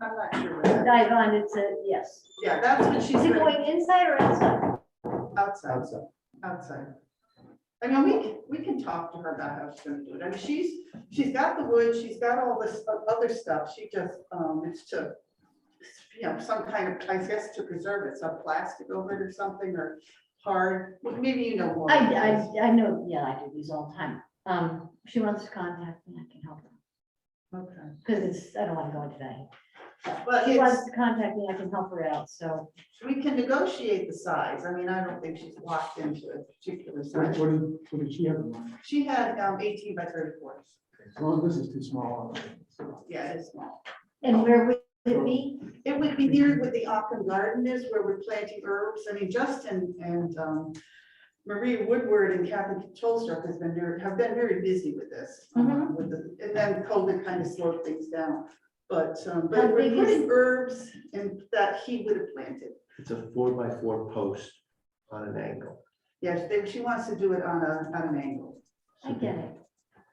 not sure. what that- dive on, it's a, yes. Yeah, that's what she's Is it doing going inside or outside? outside, outside. outside. I mean, we, can we can talk to her about how she's gonna do it. I mean, she's, she's got the wood, she's got all this o- other stuff. She just, um, it's to, you know, some kind of, I guess, to preserve it, some plastic over it or something or hard, maybe you know more. I, I, I know, yeah, I do these all the time. Um, if she wants to contact me, I can help her, Okay. because it's, I don't want to go into that. If But She it's, wants to contact me, I can help her out, so we can negotiate the size. I mean, I don't think she's locked into a particular What, size. what did, what did she have in mind? She had um, eighteen by thirty-four. Well, this is too small. Yeah, it's small. and where would it be? It would be near where the Occam Garden is, where we're planting herbs. I mean, Justin and um, Marie Woodward and Kathy Tolstruck has been, very- have been very busy with this. um, Mhm. with the- And then COVID kind of slowed things down. But, um, but How we're big is- putting herbs and that he would have planted. It's a four by four post on an angle. Yes, they- she wants to do it on a, on an angle, I get it.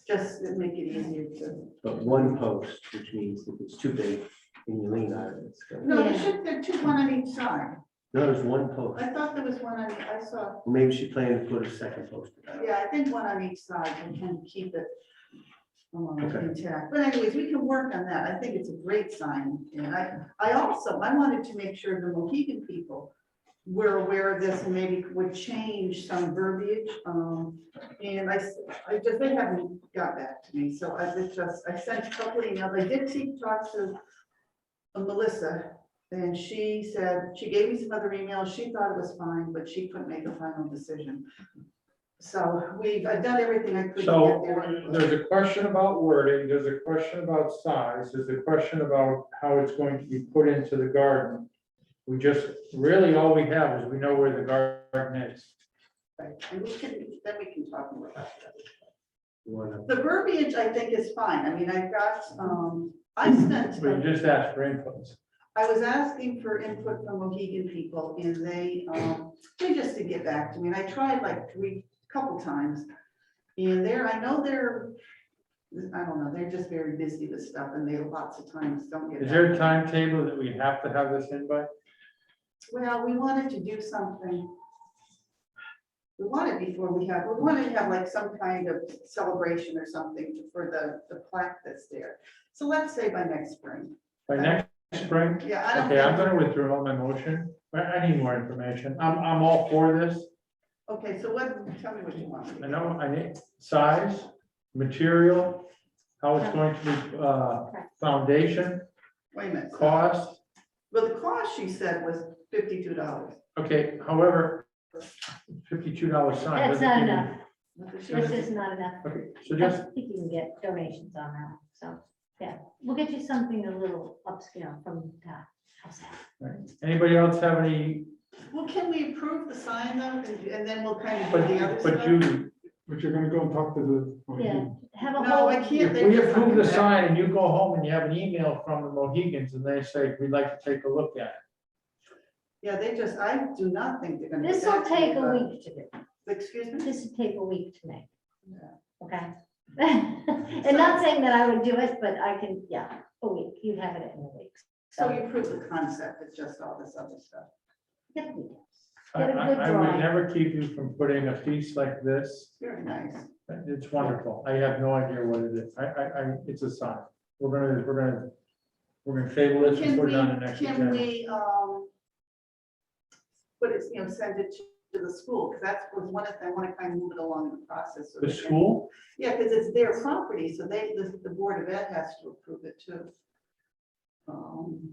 just to make it easier to. But one post, which means if it's too big and you lean on it, it's gonna, No, there Yeah. should, there are two, one on each side. no, there's one post. I thought there was one on, I saw. Maybe she planned to put a second post. in there. Yeah, I think one on each side and can keep it um, Okay. intact. But anyways, we can work on that. I think it's a great sign. And I, I also, I wanted to make sure the Mohegan people were aware of this and maybe would change some verbiage. um, And I, s- I just, they haven't got back to me. So I was just, I sent a couple emails. I did see, talk to Melissa and she said, she gave me some other emails. She thought it was fine, but she couldn't make a final decision. So we've, I've done everything I could. to So get their input. there's a question about wording, there's a question about size, there's a question about how it's going to be put into the garden. We just, really, all we have is we know where the garden is. Right, And we can, then we can talk more about that. You wanna- The verbiage, I think, is fine. I mean, I've got, um, I sent, We just asked for inputs. I was asking for input from Mohegan people and they, um, they just didn't get back to me. And I tried like three, couple times. And they're, I know they're, I don't know, they're just very busy with stuff and they lots of times don't get. Is back. there a timetable that we have to have this in by? Well, we wanted to do something. We wanted before we have, we wanted to have like some kind of celebration or something for the, the plaque that's there. So let's say by next spring. By next spring? Yeah, Uh, I don't. Okay, I'm think- gonna withdraw my motion, but I need more information. I'm, I'm all for this. Okay, so what, tell me what you want. I know, I need size, material, how it's going to be, uh, foundation, Wait a minute. cost. Well, the cost she said was fifty-two dollars. Okay, however, fifty-two dollar sign. That's doesn't not even- enough. This But is not enough. Okay, so I just, think you can get donations on that, so, yeah, we'll get you something a little upscale from that. How's that? anybody else have any, Well, can we approve the sign though, and and then we'll kind of but, do the other but stuff? you, But you're gonna go and talk to the. oh, you- Yeah. Have a No, whole, I can't. if they we just- approve the sign and you go home and you have an email from the Mohegans and they say, we'd like to take a look at Yeah, they just, I do not think they're gonna. get this will back to me, take a but- week to do. Excuse me? This would take a week to make. Yeah. Okay? And not saying that I would do it, but I can, yeah, a week, you have it in a week. So you prove the concept, it's just all this other stuff. Yep, we do. it. I, Get a I good I would drawing. never keep you from putting a piece like this. Very nice. It's wonderful. I have no idea what it is. I, I, I, it's a sign. We're gonna, we're gonna, we're gonna table this and Can put we, it on the next can agenda. we, um, but it's, you know, send it to to the school, because that's was one of, I want to kind of move it along in the process. so The they can- school, Yeah, because it's their property, so they, the, the Board of Ed has to approve it too. Um,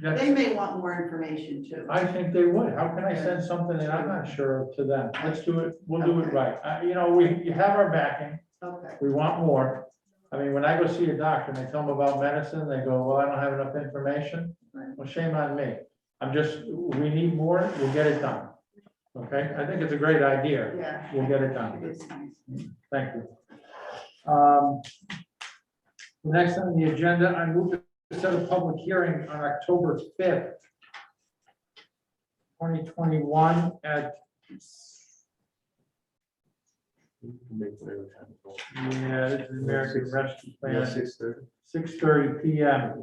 that's, They may want more information too. I think they would. How can I send something that I'm not sure of to them? Let's do it, we'll do it right. Uh, you know, we, you have our backing, Okay, we want more. I mean, when I go see a doctor and they tell them about medicine, they go, well, I don't have enough information. Right. Well, shame on me. I'm just, we need more, we'll get it done. Okay, I think it's a great idea. yeah. We'll get it done. It is nice. Thank you. Um, the Next on the agenda, I move to set a public hearing on October fifth, twenty twenty-one at, you can make whatever time you want. yeah, this is American Rescue Yeah, Plan, six thirty. six thirty P M.